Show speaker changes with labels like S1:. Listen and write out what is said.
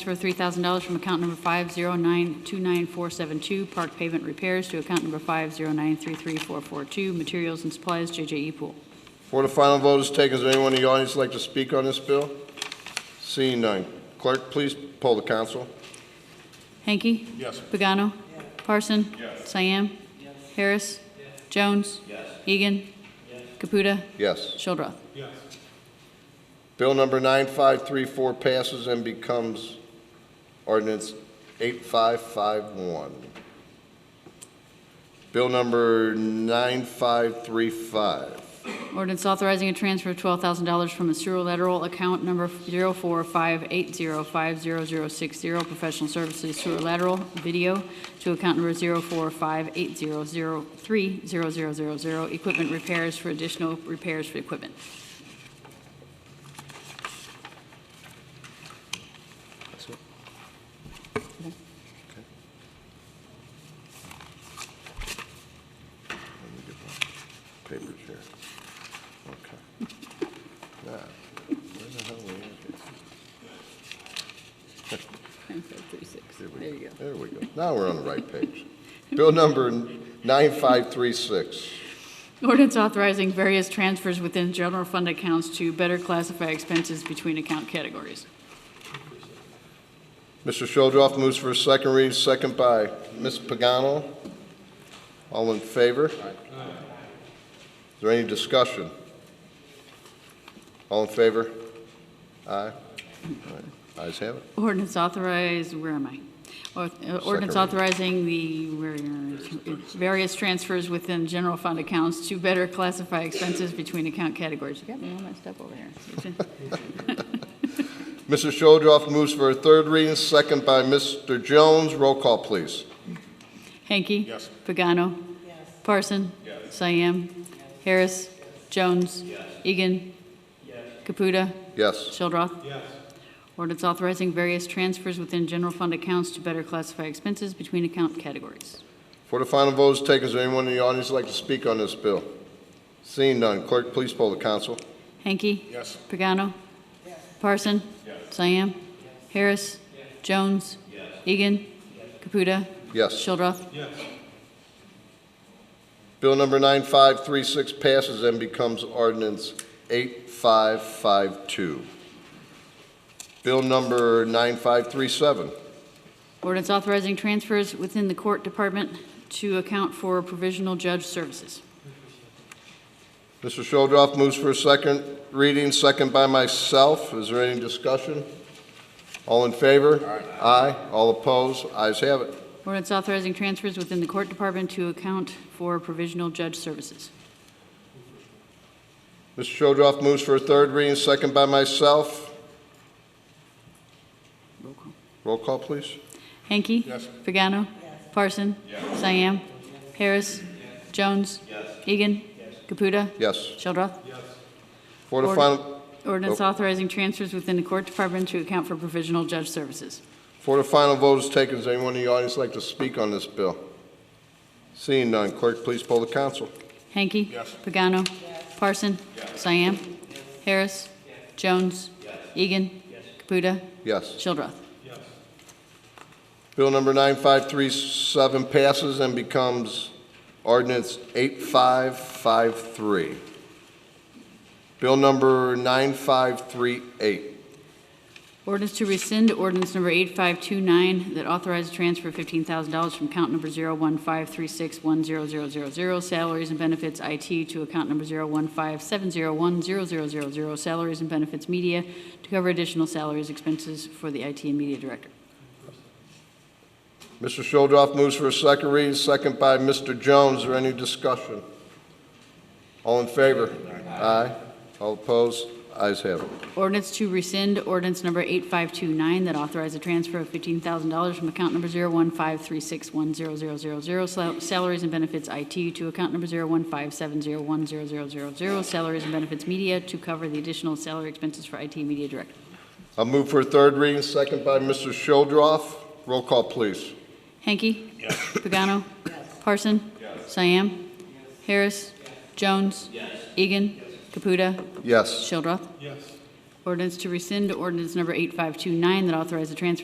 S1: Transfer $3,000 from account number 509-29472, Park Pavement Repairs, to account number 509-33442, Materials and Supplies, E. JJE Pool.
S2: Before the final vote is taken, is there anyone in the audience who'd like to speak on this bill? Seeing none. Clerk, please poll the council.
S1: Hanky?
S2: Yes.
S1: Pagano? Parson? Cyan? Harris? Jones? Egan? Caputa?
S2: Yes.
S1: Shildroth.
S2: Bill number 9534 passes and becomes ordinance 8551. Bill number 9535.
S1: Ordinance authorizing a transfer of $12,000 from a lateral account number 045805060, professional services lateral video, to account number 04580030000, equipment repairs for additional repairs for equipment.
S2: Let me get my papers here. Okay. Now, where the hell are we at?
S1: There you go.
S2: There we go. Now we're on the right page. Bill number 9536.
S1: Ordinance authorizing various transfers within general fund accounts to better classify expenses between account categories.
S2: Mr. Shuldroff moves for a second reading, second by Ms. Pagano. All in favor? Is there any discussion? All in favor? Aye. All right. Ayes have it.
S1: Ordinance authorize, where am I? Or- uh, Ordinance
S2: Second
S1: authorizing the, where, various transfers within general fund accounts to better classify expenses between account categories. You got me all messed up over here.
S2: Mr. Shuldroff moves for a third reading, second by Mr. Jones. Roll call, please.
S1: Hanky? Yes. Pagano? Yes. Parson? Yes. Cyan? Harris? Jones? Egan? Caputa?
S2: Yes.
S1: Shildroth? Yes. Ordinance authorizing various transfers within general fund accounts to better classify expenses between account categories.
S2: Before the final vote is taken, is there anyone in the audience who'd like to speak on this bill? Seeing none, clerk, please poll the council.
S1: Hanky?
S2: Yes.
S1: Pagano? Parson? Cyan? Harris? Jones? Egan? Caputa?
S2: Yes.
S1: Shildroth?
S2: Bill number 9536 passes and becomes ordinance 8552. Bill number 9537.
S1: Ordinance authorizing transfers within the court department to account for provisional judge services.
S2: Mr. Shuldroff moves for a second reading, second by myself. Is there any discussion? All in favor? Aye. All opposed? Ayes have it.
S1: Ordinance authorizing transfers within the court department to account for provisional judge services.
S2: Mr. Shuldroff moves for a third reading, second by myself.
S1: Roll call.
S2: Roll call, please.
S1: Hanky?
S2: Yes.
S1: Pagano? Parson? Cyan? Harris? Jones? Egan? Caputa?
S2: Yes.
S1: Shildroth?
S2: For the
S1: Order.
S2: final,
S1: Ordinance authorizing transfers within the court department to account for provisional judge services.
S2: for the final vote is taken, does anyone in the audience like to speak on this bill? Seeing none, clerk, please poll the council.
S1: Hanky? Pagano? Parson? Cyan? Harris? Jones? Egan? Caputa?
S2: Yes.
S1: Shildroth.
S2: Bill number 9537 passes and becomes ordinance 8553. Bill number 9538.
S1: Ordinance to rescind ordinance number 8529 that authorized transfer of $15,000 from account number 01536100000, salaries and benefits IT, to account number 01570100000, salaries and benefits media, to cover additional salaries expenses for the IT and media director.
S2: Mr. Shuldroff moves for a second reading, second by Mr. Jones. Is there any discussion? All in favor? Aye. All opposed? Ayes have it.
S1: Ordinance to rescind ordinance number 8529 that authorized a transfer of $15,000 from account number 01536100000, sal- salaries and benefits IT, to account number 01570100000, salaries and benefits media, to cover the additional salary expenses for IT media director.
S2: I'll move for a third reading, second by Mr. Shuldroff. Roll call, please.
S1: Hanky? Pagano? Parson? Cyan? Harris? Jones? Egan? Caputa?
S2: Yes.
S1: Shildroth? Yes. Ordinance to rescind ordinance number 8529 that authorized a transfer